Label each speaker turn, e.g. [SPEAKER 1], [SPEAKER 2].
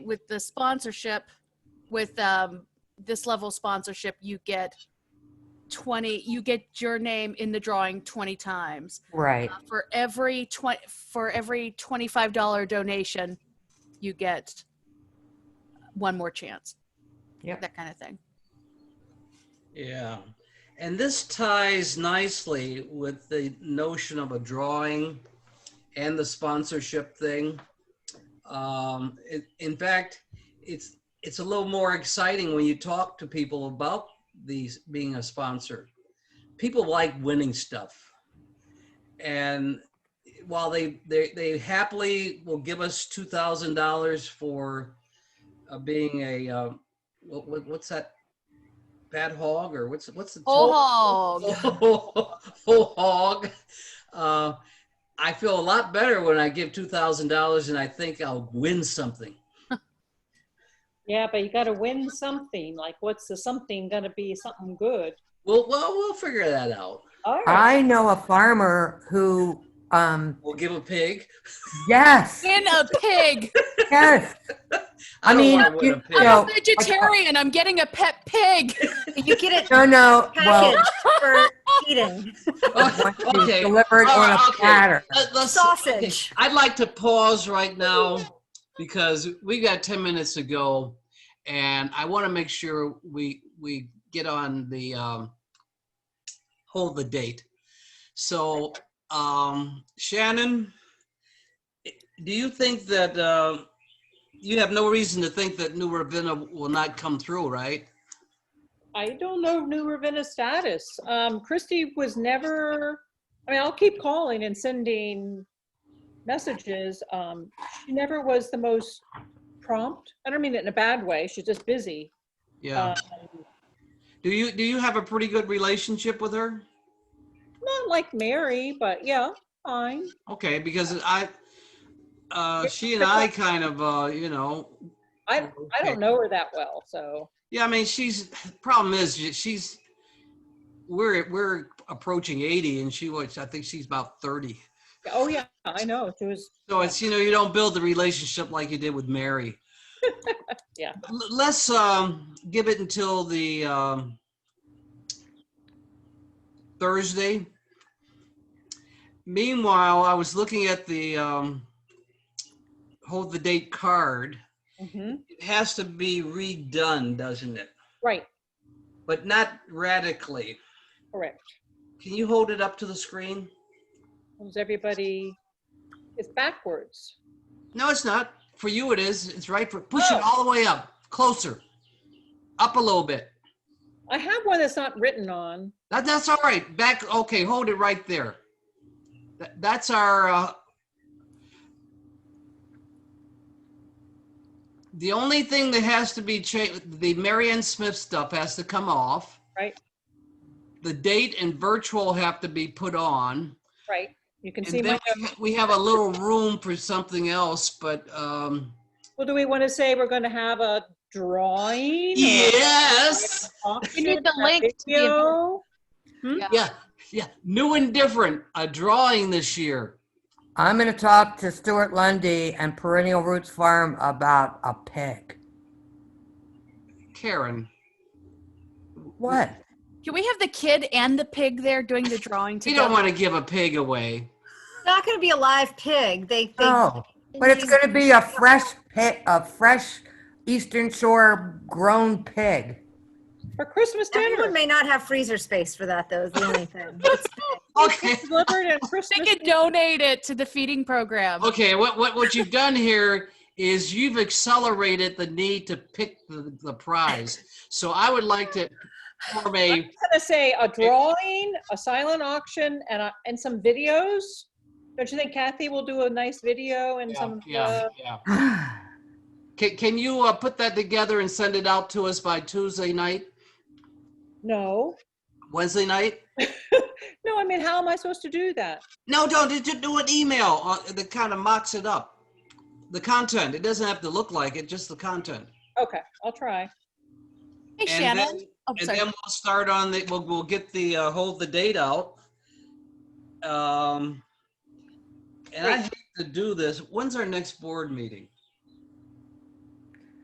[SPEAKER 1] with the sponsorship, with um, this level sponsorship, you get 20, you get your name in the drawing 20 times.
[SPEAKER 2] Right.
[SPEAKER 1] Uh, for every 20 for every $25 donation you get one more chance
[SPEAKER 2] Yep.
[SPEAKER 1] that kind of thing
[SPEAKER 3] Yeah. And this ties nicely with the notion of a drawing and the sponsorship thing. Um, it, in fact, it's it's a little more exciting when you talk to people about these being a sponsor. People like winning stuff. And while they they, they happily will give us $2,000 for uh, being a uh, what, what, what's that bad hog or what's what's the
[SPEAKER 1] Whole
[SPEAKER 3] hog whole hog. Uh, I feel a lot better when I give two thousand dollars and I think I'll win something.
[SPEAKER 4] Yeah, but you gotta win something. Like, what's the something gonna be? Something good.
[SPEAKER 3] Well, well, we'll figure that out.
[SPEAKER 4] All right.
[SPEAKER 2] I know a farmer who, um,
[SPEAKER 3] We'll give a pig.
[SPEAKER 2] yes,
[SPEAKER 1] in a pig
[SPEAKER 2] yes. I
[SPEAKER 3] don't
[SPEAKER 2] mean,
[SPEAKER 3] wanna win
[SPEAKER 2] you-
[SPEAKER 3] a pig.
[SPEAKER 2] you know,
[SPEAKER 1] vegetarian i'm getting a pet pig
[SPEAKER 5] You get it
[SPEAKER 2] no, no, well,
[SPEAKER 5] packaged for eating.
[SPEAKER 2] once it's
[SPEAKER 3] okay.
[SPEAKER 2] delivered
[SPEAKER 3] All
[SPEAKER 2] on
[SPEAKER 3] right,
[SPEAKER 2] a
[SPEAKER 3] okay.
[SPEAKER 2] platter.
[SPEAKER 3] Let- let's-
[SPEAKER 5] Sausage.
[SPEAKER 3] I'd like to pause right now because we got ten minutes to go, and I want to make sure we we get on the um, hold the date. So, um, Shannon, do you think that uh, you have no reason to think that New Ravenna will not come through, right?
[SPEAKER 4] I don't know New Ravenna status. Um, Christy was never, I mean, I'll keep calling and sending messages. Um, she never was the most prompt. I don't mean it in a bad way. She's just busy.
[SPEAKER 3] Yeah.
[SPEAKER 4] Um,
[SPEAKER 3] Do you do you have a pretty good relationship with her?
[SPEAKER 4] not like Mary, but yeah, fine.
[SPEAKER 3] Okay, because I, uh, she and I kind of, uh, you know,
[SPEAKER 4] I, I don't know her that well, so.
[SPEAKER 3] yeah, I mean, she's, problem is, she- she's, we're, we're approaching 80 and she was, I think she's about 30.
[SPEAKER 4] Oh, yeah, I know. She was,
[SPEAKER 3] So it's, you know, you don't build the relationship like you did with Mary.
[SPEAKER 4] Yeah.
[SPEAKER 3] L- Let's, um, give it until the, um, Thursday. Meanwhile, I was looking at the, um, hold the date card.
[SPEAKER 4] Mhm.
[SPEAKER 3] It has to be redone, doesn't it?
[SPEAKER 4] right,
[SPEAKER 3] But not radically.
[SPEAKER 4] correct.
[SPEAKER 3] Can you hold it up to the screen?
[SPEAKER 4] Is everybody, it's backwards.
[SPEAKER 3] No, it's not. For you, it is. It's right for, push it
[SPEAKER 4] Oh.
[SPEAKER 3] all the way up, closer, up a little bit.
[SPEAKER 4] I have one that's not written on.
[SPEAKER 3] That, that's all right. Back, okay, hold it right there. That, that's our, uh, the only thing that has to be changed, the Marianne Smith stuff has to come off.
[SPEAKER 4] Right.
[SPEAKER 3] The date and virtual have to be put on.
[SPEAKER 4] Right. You can see
[SPEAKER 3] And
[SPEAKER 4] my,
[SPEAKER 3] then we ha- we have a little room for something else, but, um,
[SPEAKER 4] well, do we want to say we're going to have a drawing? or-
[SPEAKER 3] yes,
[SPEAKER 1] We need the
[SPEAKER 4] Auction, a
[SPEAKER 1] link to be
[SPEAKER 4] video?
[SPEAKER 3] yeah, yeah, new and different, a drawing this year.
[SPEAKER 2] I'm going to talk to Stuart Lundy and Perennial Roots Farm about a pig.
[SPEAKER 3] Karen,
[SPEAKER 2] What?
[SPEAKER 1] can we have the kid and the pig there doing the drawing
[SPEAKER 3] you
[SPEAKER 1] together
[SPEAKER 3] don't want to give a pig away.
[SPEAKER 5] It's not going to be a live pig. They, they
[SPEAKER 2] No, but it's going to be a fresh pig, a fresh Eastern Shore grown pig.
[SPEAKER 4] For Christmas
[SPEAKER 5] Everyone
[SPEAKER 4] dinner.
[SPEAKER 5] may not have freezer space for that, though, is the only thing.
[SPEAKER 1] Oh,
[SPEAKER 3] Okay,
[SPEAKER 4] Delivered and Christmas.
[SPEAKER 1] they could donate it to the feeding program
[SPEAKER 3] okay, what, what, what you've done here is you've accelerated the need to pick the, the prize. So I would like to form a,
[SPEAKER 4] I'm going to say a drawing, a silent auction, and, a- and some videos. Don't you think Kathy will do a nice video and
[SPEAKER 3] yeah,
[SPEAKER 4] some,
[SPEAKER 3] yeah,
[SPEAKER 4] uh,
[SPEAKER 3] yeah.
[SPEAKER 2] I
[SPEAKER 3] Can, can you, uh, put that together and send it out to us by Tuesday night,
[SPEAKER 4] no?
[SPEAKER 3] Wednesday night?
[SPEAKER 4] No, I mean, how am I supposed to do that?
[SPEAKER 3] No, don't just just do an email uh, that kind of mocks it up. The content. It doesn't have to look like it, just the content.
[SPEAKER 4] Okay, I'll try.
[SPEAKER 1] hey
[SPEAKER 3] And
[SPEAKER 1] shannon
[SPEAKER 3] then-
[SPEAKER 1] oh,
[SPEAKER 3] And
[SPEAKER 1] sorry.
[SPEAKER 3] then we'll start on the, we'll, we'll get the, uh, hold the date out. Um, and I hate to do this. When's our next board meeting?